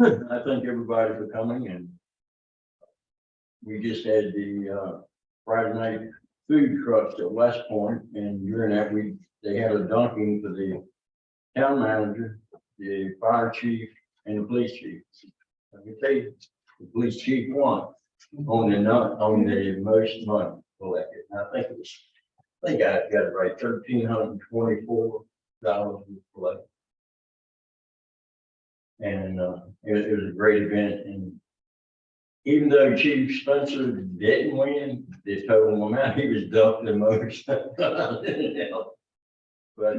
I thank everybody for coming and we just had the uh Friday night food trucks at West Point and during that we, they had a dunking for the town manager, the fire chief and the police chief. I can tell you, the police chief won on the not, on the most money collected. And I think it was, I think I got it right, thirteen hundred and twenty-four dollars collected. And uh, it was, it was a great event and even though Chief Spencer didn't win, they total amount, he was dumped the most. But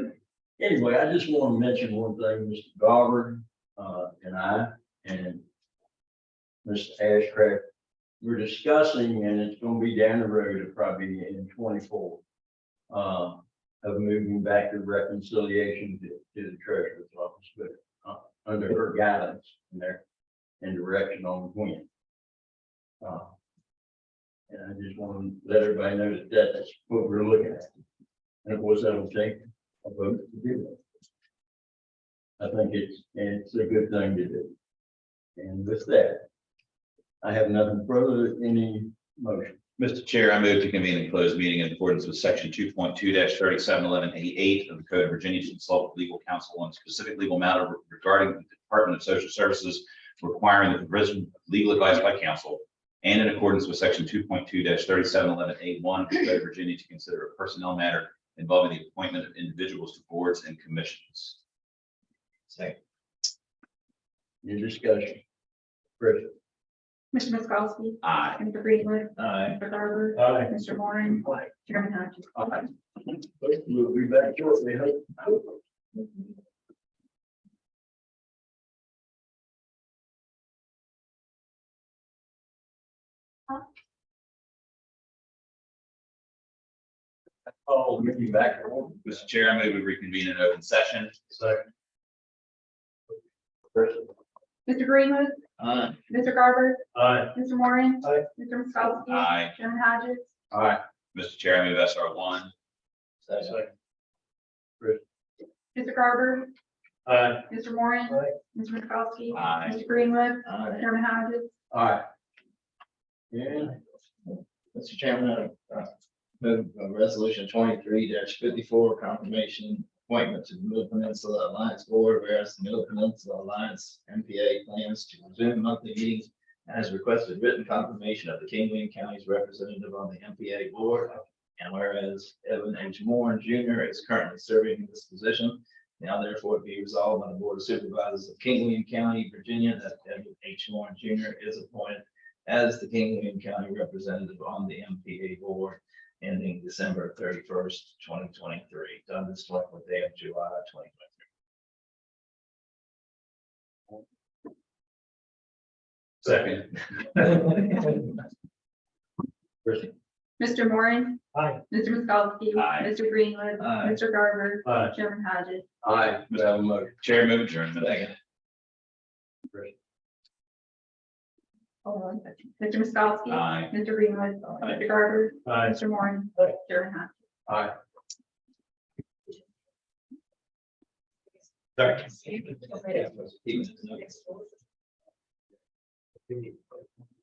anyway, I just want to mention one thing, Mr. Garber, uh, and I, and Mr. Ashcraft, we're discussing, and it's gonna be down the road, it'll probably be in twenty-four, uh, of moving back to reconciliation to, to the treasurer's office, but uh, under her guidance and their, and direction on when. Uh, And I just want to let everybody know that that's what we're looking at. And of course, that'll take a vote to do that. I think it's, it's a good thing to do. And with that, I have nothing further, any motion. Mr. Chair, I move to convene and close meeting in accordance with section two point two thirty-seven eleven eighty-eight of the Code of Virginia to consult with legal counsel on a specific legal matter regarding the Department of Social Services requiring the provision of legal advice by counsel and in accordance with section two point two thirty-seven eleven eight one of the Code of Virginia to consider a personnel matter involving the appointment of individuals to boards and commissions. Second. Any discussion? Chris, Mr. Miskowski, Aye. Mr. Greenwood, Aye. Mr. Garber, Aye. Mr. Warren, Chairman Hodges. We'll be back shortly. hope. Oh, we'll be back. in one Mr. Chair, I move we reconvene in open session. second. Chris, Mr. Greenwood, Aye. Mr. Garber, Aye. Mr. Warren, Aye. Mr. Miskowski. Aye. Chairman Hodges, Aye. Mr. Chair, I move SR one. Second. Mr. Garber, Aye. Mr. Warren, Aye. Mr. Miskowski. Aye. Mr. Greenwood, Uh, Chairman Hodges, Aye. Yeah, Mr. Chairman, I uh, move uh, resolution twenty-three fifty-four confirmation appointment to the Middle Peninsula Alliance Board, whereas the Middle Peninsula Alliance MPA plans to resume monthly meetings and has requested written confirmation of the King William County's representative on the MPA board. And whereas Evan H. Moore Jr. is currently serving in this position, now therefore be resolved by the Board of Supervisors of King William County, Virginia, that Evan H. Moore Jr. is appointed as the King William County representative on the MPA board ending December thirty-first, twenty twenty-three, done this twenty-fourth day of July, twenty twenty-three. Second. Chris, Mr. Warren. Aye. Mr. Miskowski. Aye. Mr. Greenwood, Aye. Mr. Garber, Aye. Chairman Hodges, Aye. We have a motion. Chair move adjournment. Second. hold on a second. Mr. Miskowski. Aye. Mr. Greenwood, Aye. Mr. Garber, Aye. Mr. Warren, Chairman Hodges. Aye. Sorry. He was-